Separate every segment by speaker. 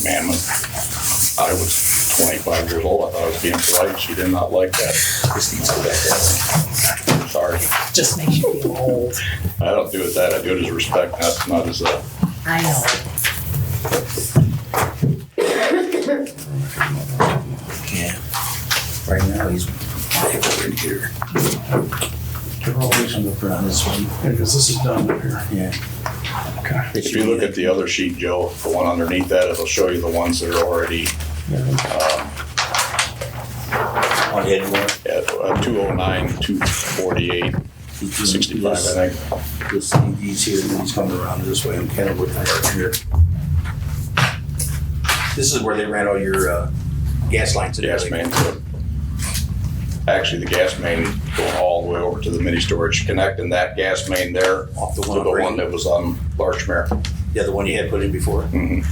Speaker 1: commandment. I was twenty-five years old, I thought I was being polite, she did not like that. This needs to back down. Sorry,
Speaker 2: Just makes you feel old.
Speaker 1: I don't do it that, I do it as respect, not, not as uh, a,
Speaker 2: I know.
Speaker 3: Yeah. Right now, he's back over here. They're all reaching up around this one.
Speaker 4: because this is done up here.
Speaker 3: Yeah.
Speaker 4: Okay.
Speaker 1: if you look at the other sheet, Joe, the one underneath that, it'll show you the ones that are already
Speaker 3: On head one.
Speaker 1: at two oh nine, two forty-eight,
Speaker 3: He's doing
Speaker 1: sixty-five, I
Speaker 3: this-
Speaker 1: think.
Speaker 3: This CD's here, and he's coming around this way on Kennewood right here. This is where they ran all your, uh, gas lines. and
Speaker 1: gas
Speaker 3: everything.
Speaker 1: main. to- Actually, the gas main going all the way over to the mini storage connect and that gas main there
Speaker 3: Off
Speaker 1: to
Speaker 3: the one.
Speaker 1: the
Speaker 3: on
Speaker 1: one
Speaker 3: Brady.
Speaker 1: that was on Larchmere.
Speaker 3: Yeah, the one you had put in before.
Speaker 1: Mhm.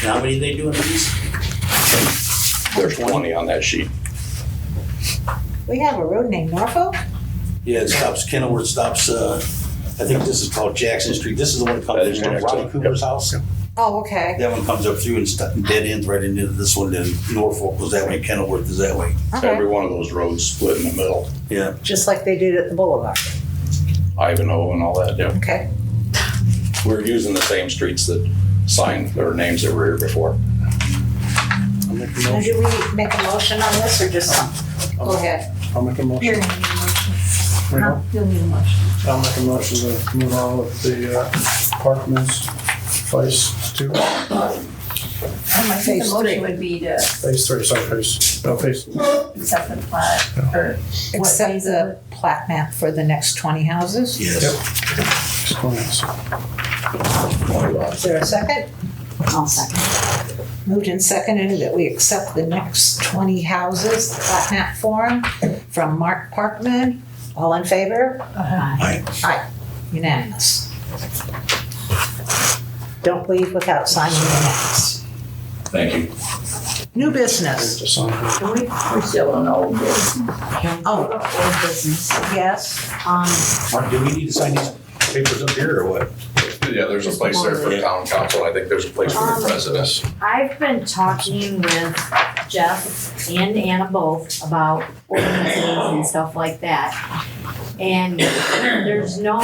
Speaker 3: And How many they doing of these?
Speaker 1: There's 20 on that sheet.
Speaker 2: We have a road named Norfolk?
Speaker 3: Yeah, it stops Kenilworth, stops, uh, I think this is called Jackson Street. This is the one that
Speaker 1: That is
Speaker 3: comes from
Speaker 1: Jackson,
Speaker 3: Ronnie Cooper's house.
Speaker 2: Oh, okay.
Speaker 3: That one comes up through and stu- dead ends right into this one. Then Norfolk was that way, Kenilworth is that way.
Speaker 1: Every
Speaker 2: Okay.
Speaker 1: one of those roads split in the middle,
Speaker 3: Yeah.
Speaker 2: Just like they did at the Boulevard.
Speaker 1: Ivanhoe and all that. yeah.
Speaker 2: Okay.
Speaker 1: We're using the same streets that signed their names that were here before.
Speaker 4: I'll make a
Speaker 2: Now,
Speaker 4: motion.
Speaker 2: do we make a motion on this or just some? Go ahead.
Speaker 4: I'll make a
Speaker 5: You're
Speaker 4: motion.
Speaker 5: gonna need a motion.
Speaker 4: Wait,
Speaker 5: Huh? You'll need a motion.
Speaker 4: I'll make a motion to move on with the uh, Parkman's phase two,
Speaker 5: I think
Speaker 2: Phase
Speaker 5: the
Speaker 2: three.
Speaker 5: motion would be to
Speaker 4: phase three, sorry, phase, no, phase.
Speaker 5: accept the plat or what
Speaker 2: Accept
Speaker 5: phase
Speaker 2: the plat map for the next twenty houses.
Speaker 3: Yes.
Speaker 2: Is there a second? I'll second. Moved and seconded that we accept the next twenty houses, the plat map form from Mark Parkman. All in favor?
Speaker 3: Aye.
Speaker 2: Aye, unanimous. Don't leave without signing the next.
Speaker 1: Thank you.
Speaker 2: New business.
Speaker 4: Just on here.
Speaker 5: We, we're still on old business.
Speaker 2: Oh,
Speaker 5: Old business.
Speaker 2: yes,
Speaker 5: Um,
Speaker 3: Mark, do we need to sign these papers up here or what?
Speaker 1: Yeah, there's a place there for town council. I think there's a place for the presidents.
Speaker 6: I've been talking with Jeff and Anna both about ordinances and stuff like that. And there's no,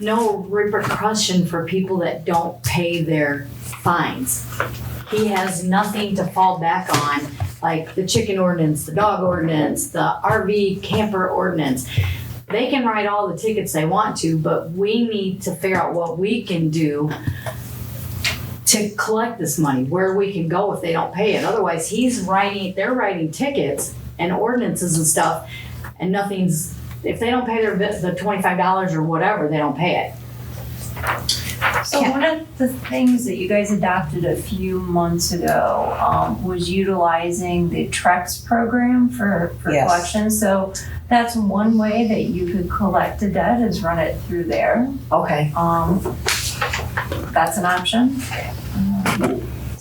Speaker 6: no repercussion for people that don't pay their fines. He has nothing to fall back on, like the chicken ordinance, the dog ordinance, the RV camper ordinance. They can write all the tickets they want to, but we need to figure out what we can do to collect this money, where we can go if they don't pay it. Otherwise, he's writing, they're writing tickets and ordinances and stuff, and nothing's, if they don't pay their, vi- the twenty-five dollars or whatever, they don't pay it.
Speaker 5: So
Speaker 2: Yeah.
Speaker 5: one of the things that you guys adopted a few months ago um, was utilizing the Trex program for, for
Speaker 2: Yes.
Speaker 5: collection. So that's one way that you could collect a debt is run it through there.
Speaker 6: Okay.
Speaker 5: Um, that's an option.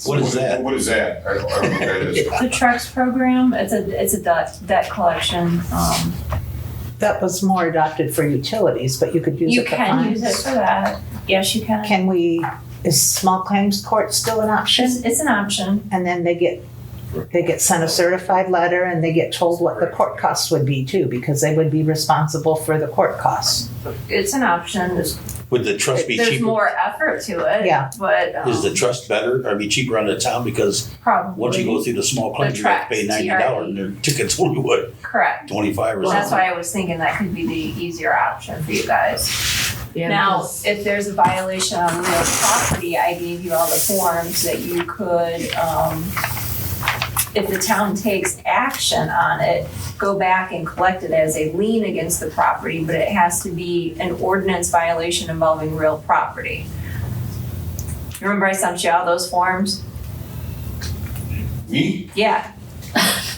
Speaker 3: What is that?
Speaker 7: What is that? I don't I don't know what that is.
Speaker 5: The Trex program, it's a it's a debt debt collection. Um,
Speaker 2: that was more adopted for utilities, but you could use
Speaker 5: you
Speaker 2: it for
Speaker 5: can use it
Speaker 2: fines.
Speaker 5: for that. Yes, you can.
Speaker 2: Can we, is small claims court still an option?
Speaker 5: It's, it's an option.
Speaker 2: And then they get, they get sent a certified letter and they get told what the court costs would be too, because they would be responsible for the court costs.
Speaker 5: It's an option. There's,
Speaker 3: Would the trust be
Speaker 5: there's
Speaker 3: cheaper?
Speaker 5: more effort to it.
Speaker 2: Yeah.
Speaker 5: But um,
Speaker 3: Is the trust better or be cheaper on the town because
Speaker 5: Probably.
Speaker 3: once you go through the small claims, you have to pay
Speaker 5: The tracks,
Speaker 3: ninety dollars and their tickets only what,
Speaker 5: Correct.
Speaker 3: twenty-five or
Speaker 5: E. Well, that's
Speaker 3: something?
Speaker 5: why I was thinking that could be the easier option for you guys.
Speaker 6: Yeah,
Speaker 5: Now,
Speaker 6: because-
Speaker 5: if there's a violation on real property, I gave you all the forms that you could, um, if the town takes action on it, go back and collect it as a lien against the property, but it has to be an ordinance violation involving real property. Remember I sent you all those forms?
Speaker 7: Me?
Speaker 5: Yeah,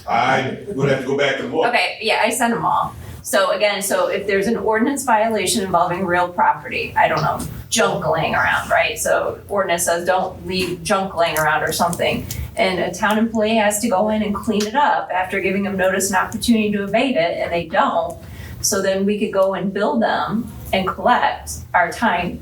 Speaker 7: I would have to go back and look.
Speaker 5: Okay, yeah, I send them all. So again, so if there's an ordinance violation involving real property, I don't know, junk laying around, right? So ordinance says don't leave junk laying around or something. And a town employee has to go in and clean it up after giving them notice and opportunity to abate it, and they don't. So then we could go and bill them and collect our time